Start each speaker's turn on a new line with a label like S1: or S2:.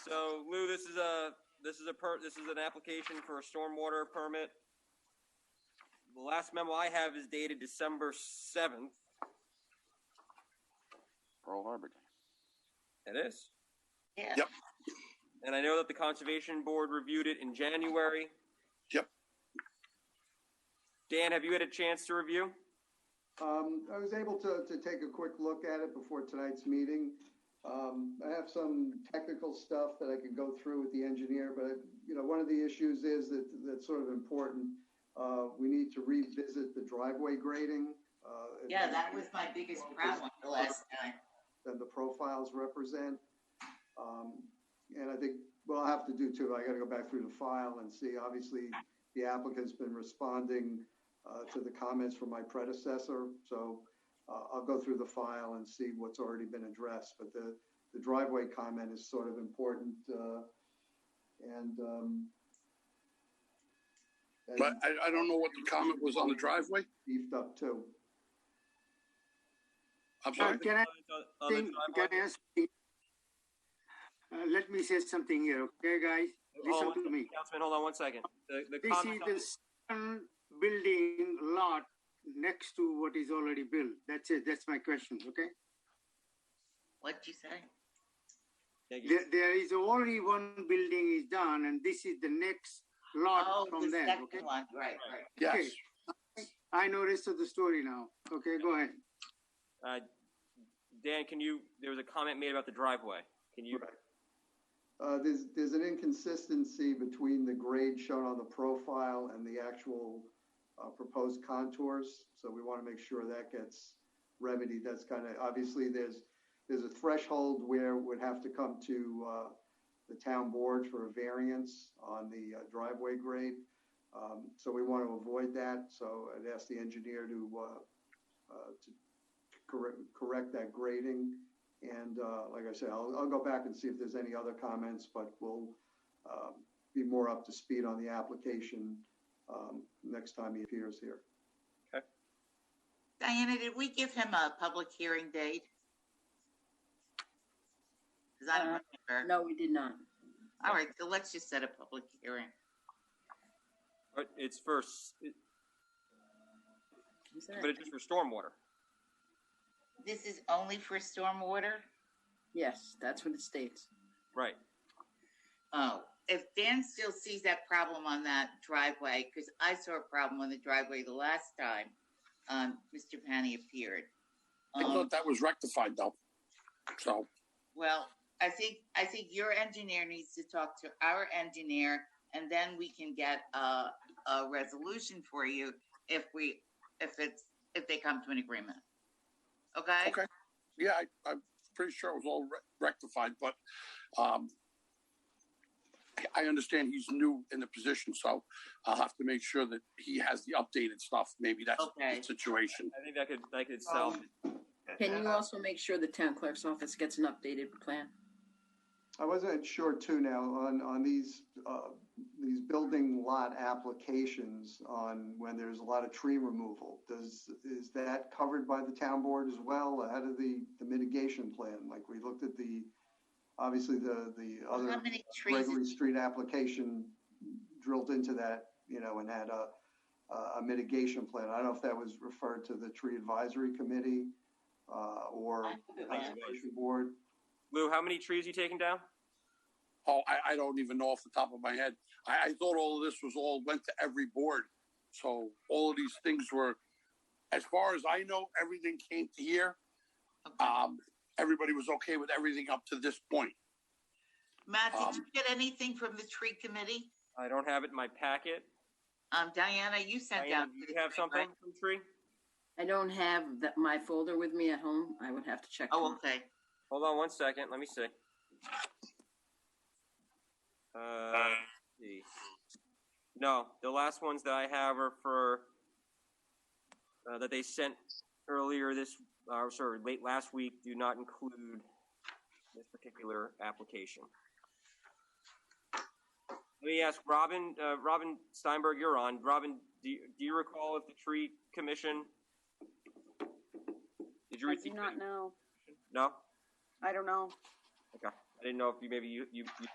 S1: So Lou, this is a, this is a per, this is an application for a stormwater permit. The last memo I have is dated December seventh.
S2: Pearl Harbor Day.
S1: It is.
S3: Yeah.
S4: Yep.
S1: And I know that the Conservation Board reviewed it in January.
S4: Yep.
S1: Dan, have you had a chance to review?
S5: Um, I was able to, to take a quick look at it before tonight's meeting. Um, I have some technical stuff that I could go through with the engineer, but, you know, one of the issues is that, that's sort of important. Uh, we need to revisit the driveway grading. uh,
S3: Yeah, that was my biggest problem the last time.
S5: That the profiles represent. Um, and I think, well, I have to do too. I gotta go back through the file and see. Obviously, the applicant's been responding uh, to the comments from my predecessor. So uh, I'll go through the file and see what's already been addressed. But the, the driveway comment is sort of important. uh, And, um, and
S4: But I, I don't know what the comment was on the driveway.
S5: beefed up too.
S4: I'm
S6: Uh,
S4: sorry.
S6: Can I
S1: On the
S6: think,
S1: timeline?
S6: can I ask? Uh, let me say something here, okay, guys?
S1: Hold
S3: Oh,
S1: on
S6: Listen to
S1: one-
S6: me.
S1: Councilman, hold on one second. The, the
S6: This is
S1: comment,
S6: the second building lot next to what is already built. That's it. That's my question, okay?
S3: What'd you say?
S1: Thank you.
S6: There, there is already one building is done and this is the next
S3: Oh,
S6: lot
S3: the
S6: from there, okay?
S3: second one, right, right.
S4: Yes.
S6: Okay. I know rest of the story now. Okay, go ahead.
S1: Uh, Dan, can you, there was a comment made about the driveway. Can you,
S5: Right. Uh, There's, there's an inconsistency between the grade shown on the profile and the actual uh, proposed contours. So we want to make sure that gets remedied. That's kind of, obviously, there's, there's a threshold where it would have to come to uh, the town board for a variance on the uh, driveway grade. Um, So we want to avoid that. So I'd ask the engineer to, uh, uh, to correct, correct that grading. And uh, like I said, I'll, I'll go back and see if there's any other comments, but we'll um, be more up to speed on the application um, next time he appears here.
S3: Diana, did we give him a public hearing date? Cause I don't remember.
S7: No, we did not.
S3: All right, so let's just set a public hearing.
S1: uh, it's first,
S7: Is that-
S1: but it's just for stormwater.
S3: This is only for stormwater?
S7: Yes, that's what it states.
S1: Right.
S3: Oh, if Dan still sees that problem on that driveway, because I saw a problem on the driveway the last time, um, Mr. Panny appeared.
S4: I
S3: Um,
S4: thought that was rectified though. So,
S3: Well, I think, I think your engineer needs to talk to our engineer and then we can get a, a resolution for you if we, if it's, if they come to an agreement. Okay?
S4: Okay. yeah, I, I'm pretty sure it was all re- rectified, but, um, I- I understand he's new in the position, so I'll have to make sure that he has the updated stuff. Maybe that's
S3: Okay.
S4: the situation.
S1: I think that could, that could solve.
S5: Um,
S1: it.
S7: Can you
S8: uh,
S7: also make sure the town clerk's office gets an updated plan?
S5: I wasn't sure too now on, on these, uh, these building lot applications on when there's a lot of tree removal. Does, is that covered by the town board as well? How did the, the mitigation plan? Like we looked at the, obviously the, the other.
S3: How many trees?
S5: Gregory Street application drilled into that, you know, and had a, a- a mitigation plan. I don't know if that was referred to the tree advisory committee, uh, or
S3: I hope it was.
S5: conservation board.
S1: Lou, how many trees you taking down?
S4: Oh, I, I don't even know off the top of my head. I, I thought all of this was all went to every board. So all of these things were, as far as I know, everything came to here.
S3: Okay.
S4: Um, everybody was okay with everything up to this point.
S3: Matt, did you
S4: um,
S3: get anything from the tree committee?
S1: I don't have it in my packet.
S3: Um, Diana, you sent
S1: Diana,
S3: out.
S1: do you have something from tree?
S7: I don't have that, my folder with me at home. I would have to check.
S3: Oh,
S7: tomorrow.
S3: okay.
S1: Hold on one second. Let me see. Uh, let's see. No, the last ones that I have are for uh, that they sent earlier this, uh, sorry, late last week. Do not include this particular application. Let me ask Robin. Uh, Robin Steinberg, you're on. Robin, do you, do you recall if the tree commission? Did you
S8: I
S1: receive?
S8: do not
S1: any-
S8: know.
S1: No.
S8: I don't know.
S1: I didn't know if you maybe you, you, you